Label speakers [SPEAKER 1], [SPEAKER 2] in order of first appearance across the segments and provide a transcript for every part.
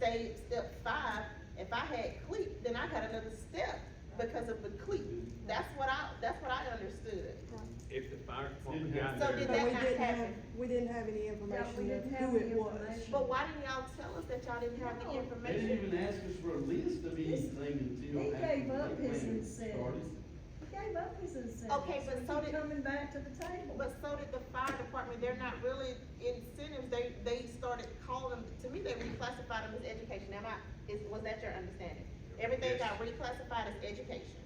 [SPEAKER 1] say step five, if I had cleat, then I got another step because of the cleat. That's what I, that's what I understood.
[SPEAKER 2] If the fire department
[SPEAKER 3] Didn't have
[SPEAKER 2] got
[SPEAKER 1] So
[SPEAKER 2] there.
[SPEAKER 1] did
[SPEAKER 4] But
[SPEAKER 1] that
[SPEAKER 4] we
[SPEAKER 1] not
[SPEAKER 4] didn't have,
[SPEAKER 1] happen?
[SPEAKER 4] we didn't have any
[SPEAKER 5] we
[SPEAKER 4] information of
[SPEAKER 5] didn't have
[SPEAKER 4] who
[SPEAKER 5] any
[SPEAKER 4] it was.
[SPEAKER 5] information.
[SPEAKER 1] But why didn't y'all tell us that y'all didn't have the
[SPEAKER 5] No.
[SPEAKER 3] They didn't
[SPEAKER 1] information?
[SPEAKER 3] even ask us for a list of anything until.
[SPEAKER 5] He
[SPEAKER 3] after
[SPEAKER 5] gave
[SPEAKER 3] the
[SPEAKER 5] up his
[SPEAKER 3] plan
[SPEAKER 5] incentive.
[SPEAKER 3] started.
[SPEAKER 5] He gave up his incentive.
[SPEAKER 1] Okay, but so
[SPEAKER 5] he
[SPEAKER 1] did-
[SPEAKER 5] Coming back to the table.
[SPEAKER 1] But so did the fire department, they're not really incentives, they, they started calling them, to me, they reclassified them as education, am I, is, was that your understanding? Everything got reclassified as education,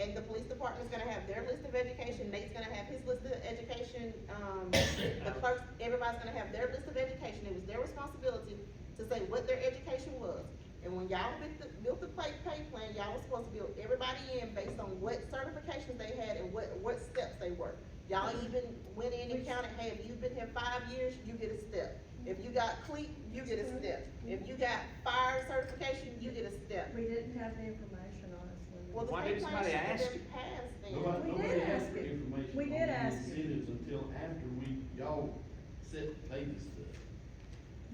[SPEAKER 1] and the police department's gonna have their list of education, Nate's gonna have his list of education, um, the clerks, everybody's gonna have their list of education, it was their responsibility to say what their education was. And when y'all built the, built the pay, pay plan, y'all was supposed to build everybody in based on what certifications they had and what, what steps they were. Y'all even went in and counted, hey, if you've been here five years, you get a step. If you got cleat, you get a step. If you got fire certification, you get a step.
[SPEAKER 5] We didn't have the information, honestly.
[SPEAKER 1] Well, the
[SPEAKER 2] Why
[SPEAKER 1] pay
[SPEAKER 2] didn't
[SPEAKER 1] plan should
[SPEAKER 2] somebody
[SPEAKER 1] have
[SPEAKER 2] ask
[SPEAKER 1] been passed then.
[SPEAKER 3] Nobody,
[SPEAKER 5] We
[SPEAKER 3] nobody
[SPEAKER 5] did
[SPEAKER 3] asked
[SPEAKER 5] ask
[SPEAKER 3] for
[SPEAKER 5] it.
[SPEAKER 3] information
[SPEAKER 5] We
[SPEAKER 3] on
[SPEAKER 5] did
[SPEAKER 3] the
[SPEAKER 5] ask it.
[SPEAKER 3] incentives until after we, y'all set paid the stuff.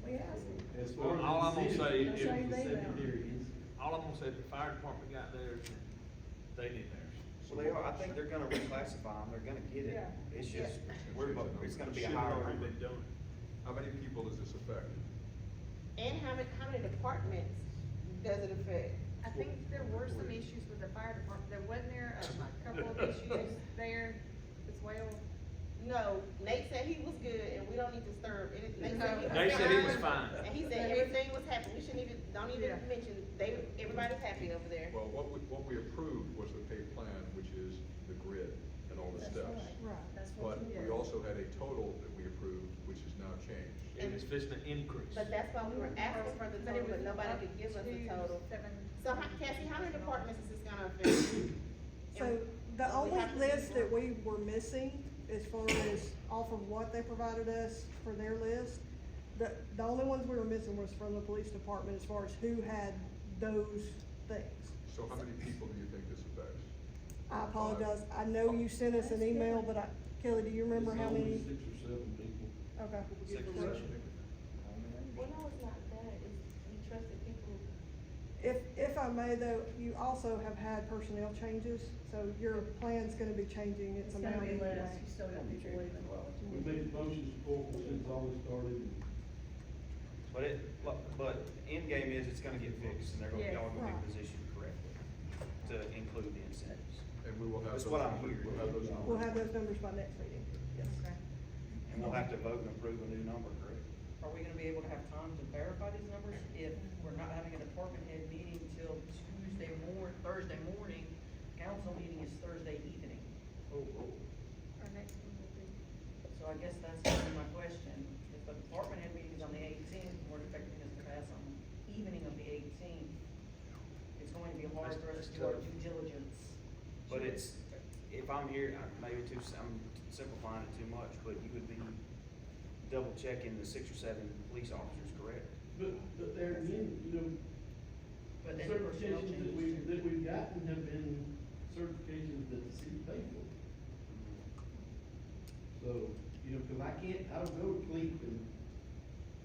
[SPEAKER 5] We asked him.
[SPEAKER 3] As far as.
[SPEAKER 2] All I'm gonna say
[SPEAKER 3] incentives,
[SPEAKER 5] is-
[SPEAKER 3] that's
[SPEAKER 5] Same
[SPEAKER 3] The
[SPEAKER 5] thing.
[SPEAKER 3] secondary is,
[SPEAKER 2] All I'm gonna say, is the fire department got theirs, they need theirs.
[SPEAKER 6] Well, they are, I think they're gonna reclassify them, they're gonna get it,
[SPEAKER 5] Yeah.
[SPEAKER 6] it's just, we're, it's gonna be a
[SPEAKER 2] Should've
[SPEAKER 6] higher
[SPEAKER 2] already
[SPEAKER 6] number.
[SPEAKER 2] been done.
[SPEAKER 7] How many people is this affecting?
[SPEAKER 1] And how many, how many departments does it affect?
[SPEAKER 8] I think there were some issues with the fire department, there wasn't there a couple of issues there as well?
[SPEAKER 1] No, Nate said he was good and we don't need to stir up anything. Nate said he was
[SPEAKER 2] They said it was
[SPEAKER 1] fine.
[SPEAKER 2] fine.
[SPEAKER 1] And he said everything was happy, we shouldn't even, don't even
[SPEAKER 8] Yeah.
[SPEAKER 1] mention, they, everybody's happy over there.
[SPEAKER 7] Well, what we, what we approved was the pay plan, which is the grid and all the
[SPEAKER 5] That's
[SPEAKER 7] steps.
[SPEAKER 5] right.
[SPEAKER 4] Right.
[SPEAKER 5] That's what
[SPEAKER 7] But
[SPEAKER 5] we
[SPEAKER 7] we
[SPEAKER 5] did.
[SPEAKER 7] also had a total that we approved, which is now changed.
[SPEAKER 2] And it's just an increase.
[SPEAKER 1] But that's why we were asking for the
[SPEAKER 8] But it
[SPEAKER 1] total, but
[SPEAKER 8] was
[SPEAKER 1] nobody
[SPEAKER 8] up
[SPEAKER 1] could give us
[SPEAKER 8] to
[SPEAKER 1] the total.
[SPEAKER 8] seven-
[SPEAKER 1] So how- Cassie, how many departments is this gonna affect?
[SPEAKER 4] So the
[SPEAKER 1] Well, we
[SPEAKER 4] only
[SPEAKER 1] have to-
[SPEAKER 4] list that we were missing as far as off of what they provided us for their list, the, the only ones we were missing was from the police department as far as who had those things.
[SPEAKER 7] So how many people do you think this affects?
[SPEAKER 4] I apologize. I know you sent us an email, but I, Kelly, do you remember
[SPEAKER 3] it's
[SPEAKER 4] how
[SPEAKER 3] only
[SPEAKER 4] many?
[SPEAKER 3] Six or seven people.
[SPEAKER 4] Okay.
[SPEAKER 6] Six or seven.
[SPEAKER 1] Well, no, it's not that, it's, we trusted people.
[SPEAKER 4] If, if I may though, you also have had personnel changes, so your plan's gonna be changing
[SPEAKER 5] It's
[SPEAKER 4] its
[SPEAKER 5] gonna
[SPEAKER 4] amount
[SPEAKER 5] be
[SPEAKER 4] anyway.
[SPEAKER 5] less, you still got people leaving.
[SPEAKER 3] We made motions for, since all this started, and
[SPEAKER 6] But it, but, but end game is it's gonna get fixed and they're gonna, y'all are gonna
[SPEAKER 4] Right.
[SPEAKER 6] be positioned correctly to include the incentives.
[SPEAKER 7] And we will have.
[SPEAKER 6] That's
[SPEAKER 7] those
[SPEAKER 6] what I'm
[SPEAKER 7] numbers-
[SPEAKER 6] hearing.
[SPEAKER 7] We'll have those numbers.
[SPEAKER 4] We'll have those numbers by next meeting, yes.
[SPEAKER 8] Okay.
[SPEAKER 6] And we'll have to vote and approve a new number, correct?
[SPEAKER 9] Are we gonna be able to have time to verify these numbers if we're not having a department head meeting till Tuesday mor- Thursday morning? Council meeting is Thursday evening,
[SPEAKER 8] Our next one will be.
[SPEAKER 9] so I guess that's kind of my question. If the department head meeting is on the eighteenth, we're expecting this to pass on the evening of the eighteenth. It's going to be hard for us to do our due diligence.
[SPEAKER 6] But it's, if I'm here, I- maybe too, s- I'm simplifying it too much, but you would be double checking the six or seven police officers, correct?
[SPEAKER 3] But, but there again, you know,
[SPEAKER 9] But then the personnel
[SPEAKER 3] certifications that we,
[SPEAKER 9] changes too.
[SPEAKER 3] that we've gotten have been certifications that the city paid for. So, you know, cause I can't, I don't go to CLEAP and,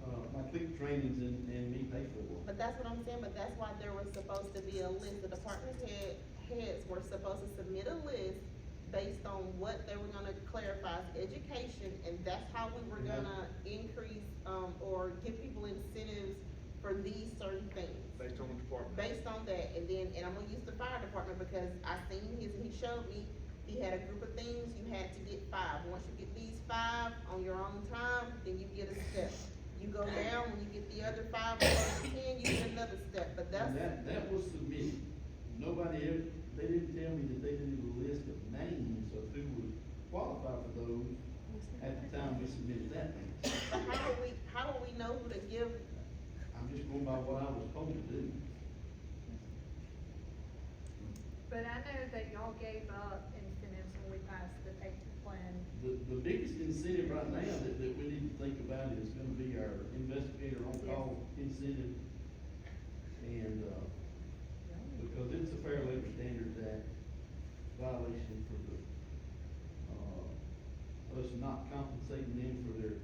[SPEAKER 3] uh, my CLEAP trainings and, and me pay for them.
[SPEAKER 1] But that's what I'm saying, but that's why there was supposed to be a list, the department head, heads were supposed to submit a list based on what they were gonna clarify as education, and that's how we were
[SPEAKER 3] Yeah.
[SPEAKER 1] gonna increase, um, or give people incentives for these certain things.
[SPEAKER 7] Based on the department.
[SPEAKER 1] based on that, and then, and I'm gonna use the fire department because I seen his, and he showed me, he had a group of things, you had to get five, once you get these five on your own time, then you get a step. You go down, when you get the other five, or the ten, you get another step, but that's,
[SPEAKER 3] And that, that was submitted. Nobody ever, they didn't tell me that they didn't do a list of names of who would qualify for those at the time we submitted that.
[SPEAKER 1] but how do we, how do we know who to give?
[SPEAKER 3] I'm just going by what I was told to do.
[SPEAKER 8] But I know that y'all gave up incentives when we passed the pay plan.
[SPEAKER 3] The, the biggest incentive right now that, that we need to think about is gonna be our investigator on-call incentive. And, uh, because it's a Fair Labor Standards Act violation for the, uh, us not compensating them for their